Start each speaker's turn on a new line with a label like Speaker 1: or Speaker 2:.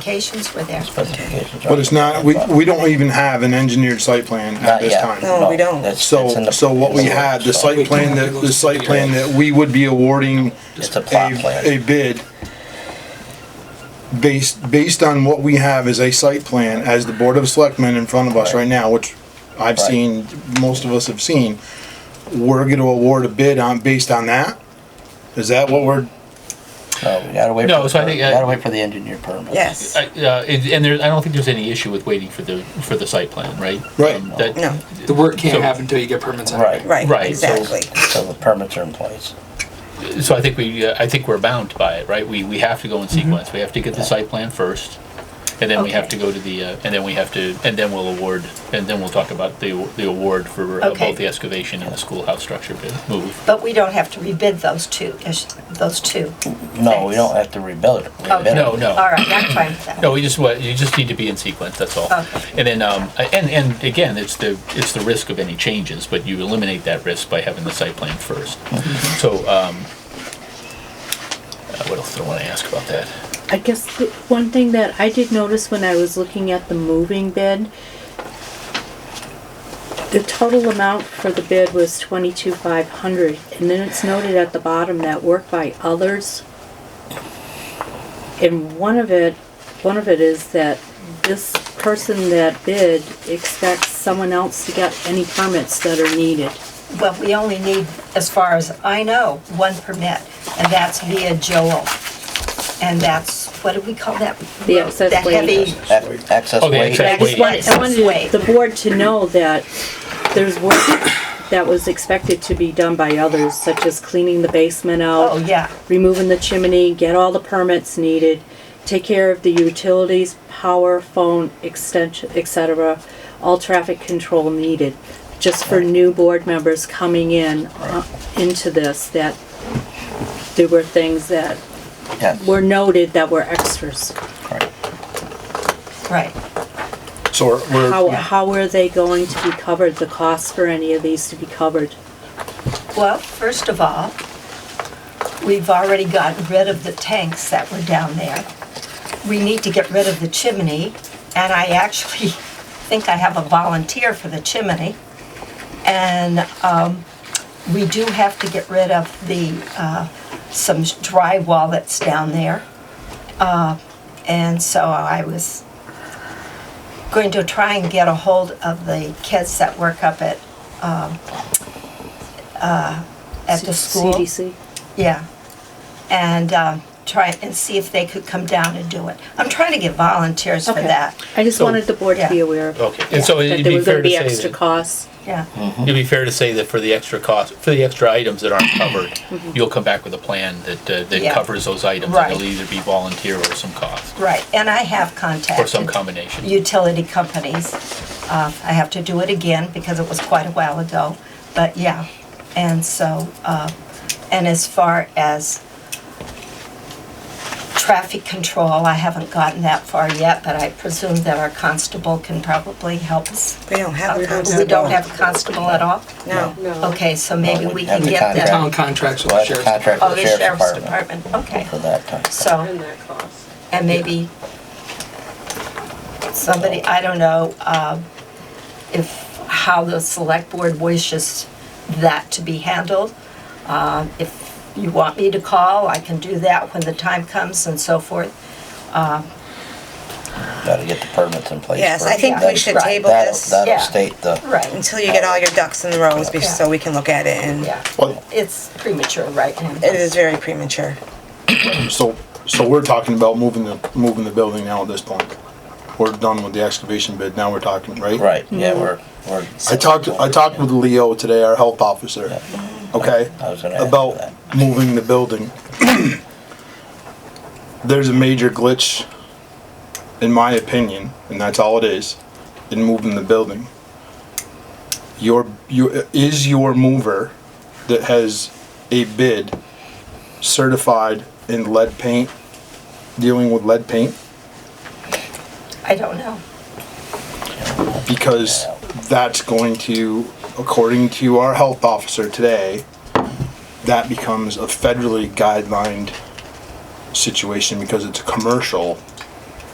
Speaker 1: Specifications were there.
Speaker 2: specifications.
Speaker 3: But it's not, we, we don't even have an engineered site plan at
Speaker 2: Not
Speaker 3: this
Speaker 2: yet.
Speaker 3: time.
Speaker 4: No, we don't.
Speaker 2: that's- that's in
Speaker 3: So,
Speaker 2: the-
Speaker 3: so what we had, the site plan, that the site plan that we would be awarding
Speaker 2: It's a plot plan.
Speaker 3: a, a bid based, based on what we have as a site plan, as the Board of Selectmen in front of us right now, which
Speaker 2: Right.
Speaker 3: I've seen, most of us have seen, we're gonna award a bid on, based on that? Is that what we're,
Speaker 2: No, we gotta wait.
Speaker 5: No,
Speaker 2: for the
Speaker 5: so I
Speaker 2: permit.
Speaker 5: think,
Speaker 2: We
Speaker 5: uh,
Speaker 2: gotta wait for the engineer permit.
Speaker 4: Yes.
Speaker 5: I- uh, it- And there, I don't think there's any issue with waiting for the, for the site plan, right?
Speaker 3: Right.
Speaker 5: Um, that-
Speaker 4: No,
Speaker 6: The work can't
Speaker 5: So-
Speaker 6: happen until you get permits. out.
Speaker 2: Right.
Speaker 4: right,
Speaker 5: Right, so-
Speaker 4: exactly.
Speaker 2: So the permits are in place.
Speaker 5: So I think we, uh, I think we're bound by it, right? We, we have to go in sequence. We have to get the site plan first. And then we have
Speaker 1: Okay.
Speaker 5: to go to the, uh, and then we have to, and then we'll award, and then we'll talk about the, the award for uh,
Speaker 1: Okay.
Speaker 5: both the excavation and the schoolhouse structure bid move.
Speaker 1: But we don't have to rebid those two, is- those two.
Speaker 2: No, we
Speaker 1: Thanks.
Speaker 2: don't have to rebuild it.
Speaker 1: Okay.
Speaker 2: Rebid it.
Speaker 5: Oh, No, no.
Speaker 1: All right, I'm fine with that.
Speaker 5: No, we just, what, you just need to be in sequence, that's all.
Speaker 1: Okay.
Speaker 5: And then, um, and, and again, it's the, it's the risk of any changes, but you eliminate that risk by having the site plan first.
Speaker 1: Mm-hmm.
Speaker 5: So, um, uh, what else do I wanna ask about that?
Speaker 7: I guess the one thing that I did notice when I was looking at the moving bid, the total amount for the bid was twenty-two five hundred, and then it's noted at the bottom that work by others. And one of it, one of it is that this person that bid expects someone else to get any permits that are needed.
Speaker 1: Well, we only need, as far as I know, one permit, and that's via Joel. And that's, what do we call that?
Speaker 7: The excess weight.
Speaker 1: The heavy,
Speaker 2: Ac- Access
Speaker 5: Okay,
Speaker 2: weight.
Speaker 5: access
Speaker 7: I just wanted, I
Speaker 1: Wait.
Speaker 7: wanted the board to know that there's work that was expected to be done by others, such as cleaning the basement
Speaker 1: oh,
Speaker 7: out,
Speaker 1: yeah,
Speaker 7: removing the chimney, get all the permits needed, take care of the utilities, power, phone, extension, et cetera, all traffic control needed, just for new board members coming in, uh, into this, that there were things that
Speaker 2: Yes.
Speaker 7: were noted that were extras.
Speaker 2: Right.
Speaker 1: right.
Speaker 3: so we're- we're.
Speaker 7: How, how are they going to be covered, the cost for any of these to be covered?
Speaker 1: Well, first of all, we've already gotten rid of the tanks that were down there. We need to get rid of the chimney, and I actually think I have a volunteer for the chimney. And um, we do have to get rid of the, uh, some drywall that's down there. Uh, And so I was going to try and get a hold of the kids that work up at, um, uh, at the school.
Speaker 7: CDC?
Speaker 1: Yeah, and um, try and see if they could come down and do it. I'm trying to get volunteers for
Speaker 7: Okay.
Speaker 1: that.
Speaker 7: I just
Speaker 5: So-
Speaker 7: wanted the board to be
Speaker 1: Yeah.
Speaker 7: aware of.
Speaker 5: Okay, and so it'd
Speaker 7: That there
Speaker 5: be
Speaker 7: were gonna
Speaker 5: fair
Speaker 7: be
Speaker 5: to say
Speaker 7: extra
Speaker 5: that,
Speaker 7: costs.
Speaker 1: Yeah,
Speaker 5: it'd be fair to say that for the extra cost, for the extra items that aren't covered, you'll come back with a plan that, uh,
Speaker 1: Mm-hmm. Yeah.
Speaker 5: that covers those items. and It'll
Speaker 1: Right.
Speaker 5: either be volunteer or some cost,
Speaker 1: right. And I have
Speaker 5: or some
Speaker 1: contacted
Speaker 5: combination.
Speaker 1: utility companies. Uh, I have to do it again because it was quite a while ago, but yeah. And so, uh, and as far as traffic control, I haven't gotten that far yet, but I presume that our constable can probably help us.
Speaker 4: We don't have.
Speaker 1: We don't have a constable at all?
Speaker 4: No.
Speaker 1: Okay, so maybe
Speaker 2: No,
Speaker 1: we
Speaker 2: we
Speaker 1: can
Speaker 2: have to
Speaker 1: get
Speaker 2: contact-
Speaker 1: that.
Speaker 6: Town contracts with
Speaker 2: We'll
Speaker 6: the
Speaker 2: have to
Speaker 6: sheriff's.
Speaker 2: contract
Speaker 1: Oh,
Speaker 2: with
Speaker 1: the
Speaker 2: the sheriff's department
Speaker 1: department, okay.
Speaker 2: for that time.
Speaker 1: So,
Speaker 8: that cost.
Speaker 1: and maybe somebody, I don't know, um, if, how the select board wishes that to be handled. Um, If you want me to call, I can do that when the time comes and so forth.
Speaker 2: Gotta get the permits in place.
Speaker 4: Yes, I
Speaker 2: first.
Speaker 4: think
Speaker 1: we
Speaker 2: That-
Speaker 4: should
Speaker 2: that'll-
Speaker 4: table this.
Speaker 2: That'll
Speaker 1: Yeah.
Speaker 2: state the.
Speaker 1: Right.
Speaker 4: Until you get all your ducks in the rows, be- so we can look at it, and
Speaker 1: Yeah,
Speaker 3: Well,
Speaker 1: it's premature right
Speaker 4: it
Speaker 1: now.
Speaker 4: is very premature.
Speaker 3: So, so we're talking about moving the, moving the building now at this point. We're done with the excavation bid, now we're talking, right?
Speaker 2: Right, yeah,
Speaker 1: Mm-hmm.
Speaker 2: we're, we're.
Speaker 3: I talked, I talked with Leo today, our health officer, okay?
Speaker 2: I was gonna ask
Speaker 3: About
Speaker 2: that.
Speaker 3: moving the building. There's a major glitch, in my opinion, and that's all it is, in moving the building. Your, your, is your mover that has a bid certified in lead paint, dealing with lead paint?
Speaker 1: I don't know.
Speaker 3: because that's going to, according to our health officer today, that becomes a federally guidelined situation because it's a commercial